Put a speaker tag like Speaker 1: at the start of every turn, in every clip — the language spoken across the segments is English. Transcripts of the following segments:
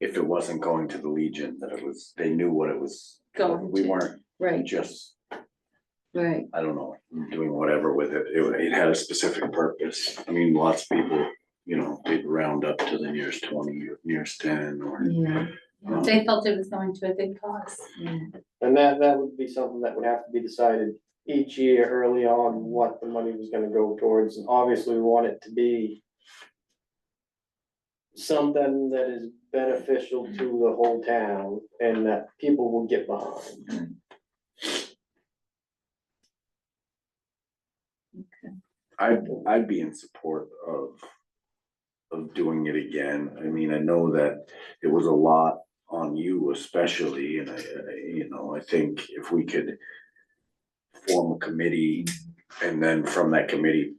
Speaker 1: if it wasn't going to the Legion, that it was, they knew what it was.
Speaker 2: Going
Speaker 1: We
Speaker 2: to.
Speaker 1: weren't
Speaker 2: Right,
Speaker 1: just,
Speaker 2: right.
Speaker 1: I don't know, doing whatever with it. It, wa- it had a specific purpose. I mean, lots of people, you know, they'd round up to the nearest twenty, or nearest ten or.
Speaker 2: Yeah,
Speaker 1: um,
Speaker 3: They felt it was going to a big cause.
Speaker 2: yeah.
Speaker 4: And that, that would be something that would have to be decided each year early on, what the money was gonna go towards, and obviously we want it to be something that is beneficial to the whole town and that people will get behind.
Speaker 1: I'd, I'd be in support of, of doing it again. I mean, I know that it was a lot on you especially, and I, I- you know, I think if we could form a committee and then from that committee,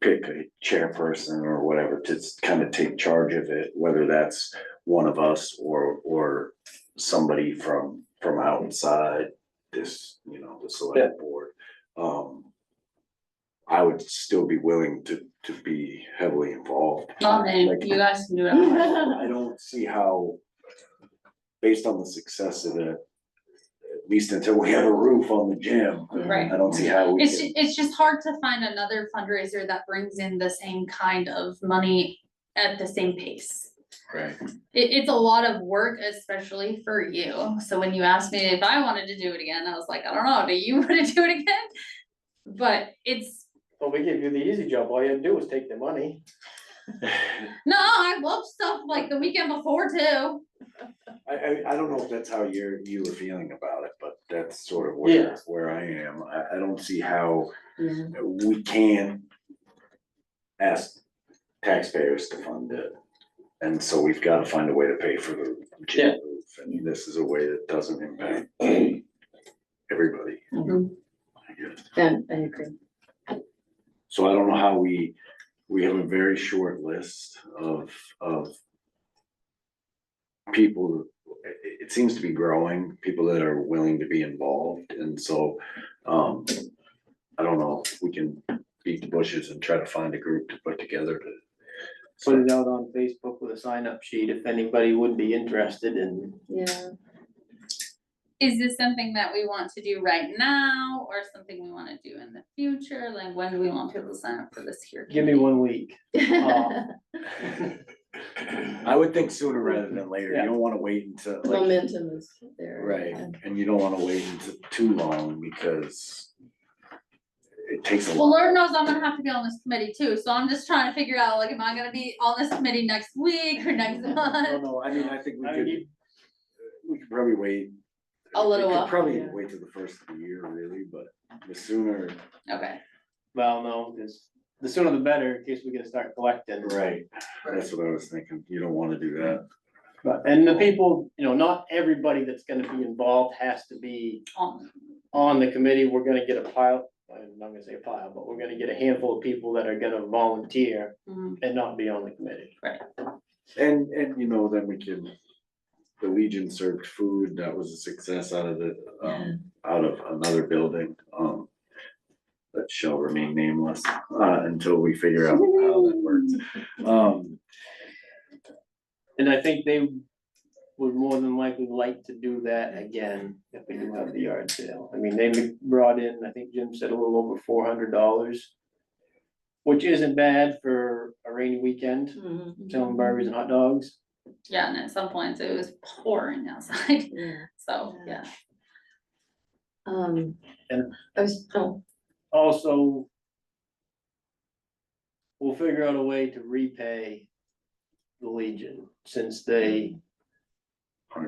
Speaker 1: pick a chairperson or whatever to kind of take charge of it, whether that's one of us or, or somebody from, from outside this, you know, the select board. Um, I would still be willing to, to be heavily involved.
Speaker 3: Well, then
Speaker 1: Like-
Speaker 3: you guys can do it.
Speaker 1: I don't see how, based on the success of it, at least until we have a roof on the gym,
Speaker 3: Right.
Speaker 1: I don't see how we
Speaker 3: It's,
Speaker 1: can.
Speaker 3: ju- it's just hard to find another fundraiser that brings in the same kind of money at the same pace.
Speaker 1: Right.
Speaker 3: It, it's a lot of work, especially for you. So when you asked me if I wanted to do it again, I was like, I don't know, do you wanna do it again? But it's,
Speaker 4: But we give you the easy job, all you have to do is take the money.
Speaker 3: no, I love stuff like the weekend before too.
Speaker 1: I, I, I don't know if that's how you're, you were feeling about it, but that's sort of where,
Speaker 4: Yeah.
Speaker 1: where I am. I, I don't see how
Speaker 2: Yeah,
Speaker 1: we can ask taxpayers to fund it. And so we've got to find a way to pay for the
Speaker 4: Yeah.
Speaker 1: gym roof, and this is a way that doesn't impact everybody.
Speaker 2: Mhm.
Speaker 1: I guess.
Speaker 2: yeah, I agree.
Speaker 1: So I don't know how we, we have a very short list of, of people, it, it seems to be growing, people that are willing to be involved, and so, um, I don't know, if we can beat the bushes and try to find a group to put together to.
Speaker 4: Put it out on Facebook with a sign up sheet if anybody would be interested in.
Speaker 2: Yeah,
Speaker 3: Is this something that we want to do right now or something we wanna do in the future? Like when do we want people to sign up for this here?
Speaker 4: Give me one week. Um,
Speaker 1: I would think sooner rather than later, you don't wanna wait until, like,
Speaker 2: momentum is there.
Speaker 1: right, and you don't wanna wait until too long, because it takes a
Speaker 3: Well,
Speaker 1: lot.
Speaker 3: Lord knows I'm gonna have to be on this committee too, so I'm just trying to figure out, like, am I gonna be on this committee next week or next
Speaker 1: No,
Speaker 3: month?
Speaker 1: no, I mean, I think we
Speaker 4: I
Speaker 1: could. uh,
Speaker 4: mean, you-
Speaker 1: we could probably wait.
Speaker 3: A little
Speaker 1: We could
Speaker 3: while,
Speaker 1: Probably
Speaker 2: yeah.
Speaker 1: wait till the first of the year, really, but the sooner.
Speaker 3: Okay,
Speaker 4: Well, no, because the sooner the better, in case we can start collecting.
Speaker 1: Right. That's what I was thinking, you don't wanna do that,
Speaker 4: But, and the people, you know, not everybody that's gonna be involved has to be
Speaker 3: on,
Speaker 4: on the committee, we're gonna get a pile. I'm not gonna say a pile, but we're gonna get a handful of people that are gonna volunteer
Speaker 3: mm,
Speaker 4: and not be on the committee.
Speaker 1: and, and you know, then we can. The Legion served food, that was a success out of the, um, out of another building, um. That shall remain nameless, uh, until we figure out how that works, um,
Speaker 4: And I think they would more than likely like to do that again if we do have the yard sale. I mean, they brought in, I think Jim said a little over four hundred dollars. Which isn't bad for a rainy weekend,
Speaker 2: Mhm,
Speaker 4: selling burgers and hot dogs.
Speaker 3: yeah, and at some points it was pouring outside,
Speaker 2: yeah.
Speaker 3: so, yeah.
Speaker 2: Um,
Speaker 4: And-
Speaker 2: I was, oh,
Speaker 4: also. We'll figure out a way to repay the Legion, since they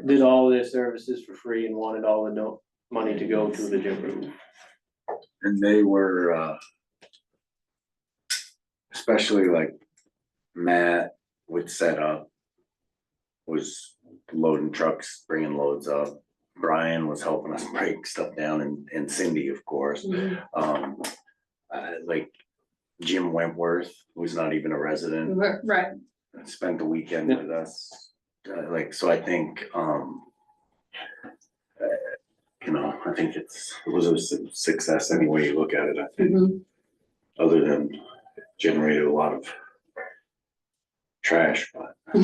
Speaker 4: did all their services for free and wanted all the no, money to go to the gym room.
Speaker 1: and they were, uh. Especially like Matt would set up. Was loading trucks, bringing loads up. Brian was helping us break stuff down and, and Cindy, of course,
Speaker 2: mhm,
Speaker 1: um, uh, like. Jim Wentworth, who's not even a resident,
Speaker 3: Right,
Speaker 1: spent the weekend with us, Uh, like, so I think, um. uh, You know, I think it's, it was a su- success any way you look at it, I think
Speaker 2: mhm,
Speaker 1: other than generated a lot of trash, but